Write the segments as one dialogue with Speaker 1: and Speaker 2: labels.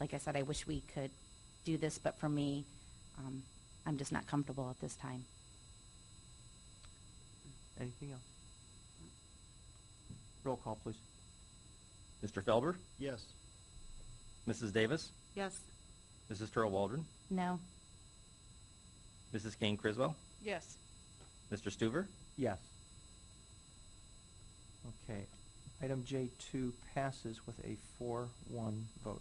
Speaker 1: like I said, I wish we could do this, but for me, um, I'm just not comfortable at this time.
Speaker 2: Anything else? Roll call, please.
Speaker 3: Mr. Felber?
Speaker 4: Yes.
Speaker 3: Mrs. Davis?
Speaker 5: Yes.
Speaker 3: Mrs. Turl Waldron?
Speaker 1: No.
Speaker 3: Mrs. Kane Criswell?
Speaker 5: Yes.
Speaker 3: Mr. Stuver?
Speaker 2: Yes. Okay. Item J2 passes with a 4-1 vote.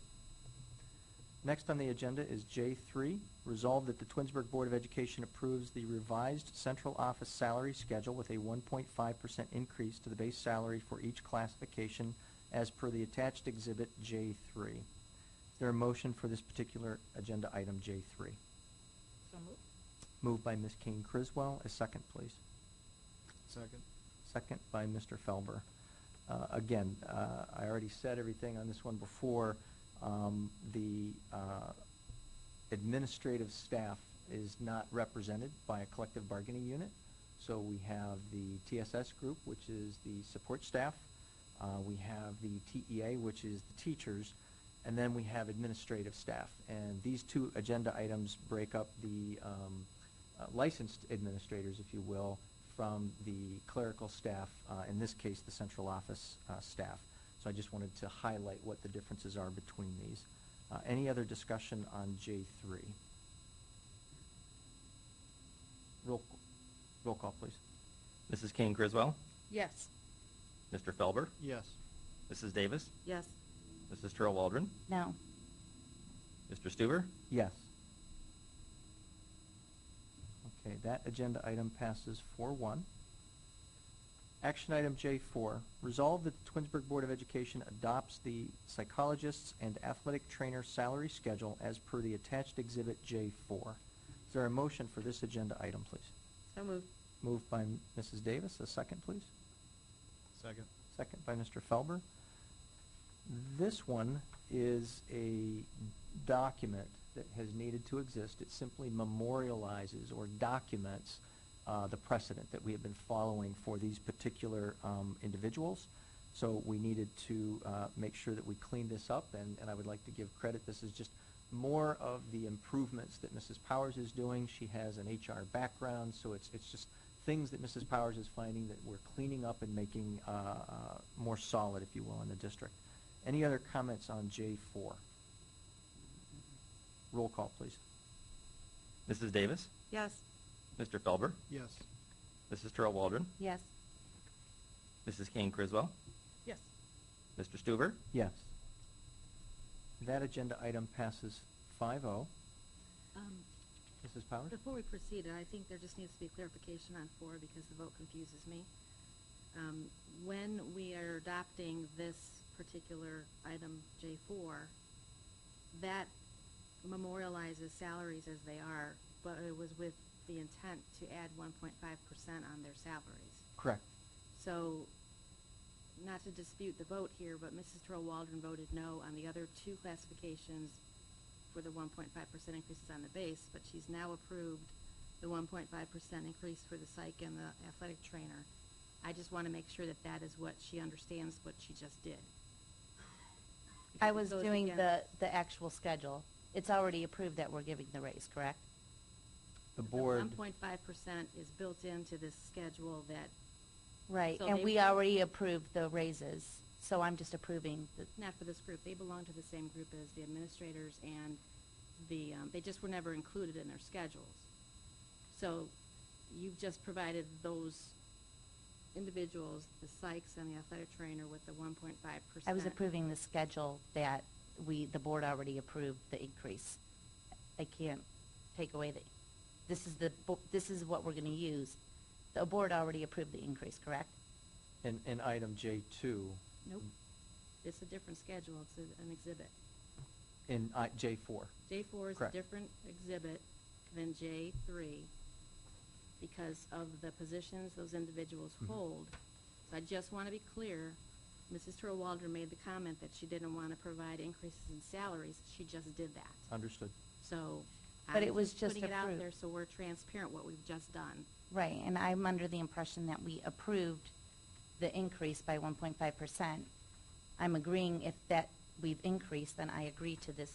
Speaker 2: Next on the agenda is J3, resolved that the Twinsburg Board of Education approves the revised central office salary schedule with a 1.5% increase to the base salary for each classification as per the attached exhibit J3. Is there a motion for this particular agenda item J3?
Speaker 5: So moved.
Speaker 2: Moved by Ms. Kane Criswell. A second, please.
Speaker 4: Second.
Speaker 2: Second by Mr. Felber. Uh, Again, uh, I already said everything on this one before. Um, The uh, administrative staff is not represented by a collective bargaining unit. So we have the TSS group, which is the support staff. Uh, We have the TEA, which is the teachers. And then we have administrative staff. And these two agenda items break up the um, uh, licensed administrators, if you will, from the clerical staff, uh, in this case, the central office uh, staff. So I just wanted to highlight what the differences are between these. Uh, Any other discussion on J3? Roll, roll call, please.
Speaker 3: Mrs. Kane Criswell?
Speaker 5: Yes.
Speaker 3: Mr. Felber?
Speaker 4: Yes.
Speaker 3: Mrs. Davis?
Speaker 5: Yes.
Speaker 3: Mrs. Turl Waldron?
Speaker 1: No.
Speaker 3: Mr. Stuver?
Speaker 2: Yes. Okay, that agenda item passes four one. Action item J four, resolve that the Twinsburg Board of Education adopts the psychologist's and athletic trainer salary schedule as per the attached exhibit J four. Is there a motion for this agenda item, please?
Speaker 5: So moved.
Speaker 2: Moved by M- Mrs. Davis, a second, please.
Speaker 4: Second.
Speaker 2: Second by Mr. Felber. This one is a document that has needed to exist. It simply memorializes or documents uh, the precedent that we have been following for these particular um, individuals. So we needed to uh, make sure that we cleaned this up, and, and I would like to give credit. This is just more of the improvements that Mrs. Powers is doing. She has an HR background, so it's, it's just things that Mrs. Powers is finding that we're cleaning up and making uh, uh, more solid, if you will, in the district. Any other comments on J4? Roll call, please.
Speaker 3: Mrs. Davis?
Speaker 5: Yes.
Speaker 3: Mr. Felber?
Speaker 4: Yes.
Speaker 3: Mrs. Turl Waldron?
Speaker 1: Yes.
Speaker 3: Mrs. Kane Criswell?
Speaker 5: Yes.
Speaker 3: Mr. Stuver?
Speaker 2: Yes. That agenda item passes 5-0.
Speaker 6: Um,
Speaker 2: Mrs. Powers?
Speaker 6: Before we proceed, I think there just needs to be clarification on four because the vote confuses me. Um, When we are adopting this particular item, J4, that memorializes salaries as they are, but it was with the intent to add 1.5% on their salaries.
Speaker 2: Correct.
Speaker 6: So, not to dispute the vote here, but Mrs. Turl Waldron voted no on the other two classifications for the one point five percent increases on the base, but she's now approved the one point five percent increase for the psych and the athletic trainer. I just want to make sure that that is what she understands what she just did. Because
Speaker 1: I
Speaker 6: it
Speaker 1: was
Speaker 6: goes
Speaker 1: doing the,
Speaker 6: against-
Speaker 1: the actual schedule. It's already approved that we're giving the raise, correct?
Speaker 2: The board,
Speaker 6: one point five percent is built into this schedule that,
Speaker 1: Right,
Speaker 6: So
Speaker 1: and
Speaker 6: they
Speaker 1: we
Speaker 6: will-
Speaker 1: already approved the raises, so I'm just approving the,
Speaker 6: not for this group, they belong to the same group as the administrators and the, um, they just were never included in their schedules. So you've just provided those individuals, the psychs and the athletic trainer with the one point five percent.
Speaker 1: I was approving the schedule that we, the board already approved the increase. I can't take away the, this is the, bo- this is what we're gonna use. The board already approved the increase, correct?
Speaker 2: in, in item J2,
Speaker 6: Nope. It's a different schedule. It's a- an exhibit.
Speaker 2: in uh, I- J4.
Speaker 6: J4 is a
Speaker 2: Correct.
Speaker 6: different exhibit than J3 because of the positions those individuals
Speaker 2: Mhm.
Speaker 6: hold. So I just want to be clear, Mrs. Turl Waldron made the comment that she didn't want to provide increases in salaries. She just did that.
Speaker 2: Understood.
Speaker 6: So
Speaker 1: But
Speaker 6: I'm
Speaker 1: it was just
Speaker 6: Putting it out
Speaker 1: approved.
Speaker 6: there so we're transparent what we've just done.
Speaker 1: Right, and I'm under the impression that we approved the increase by one point five percent. I'm agreeing if that, we've increased, then I agree to this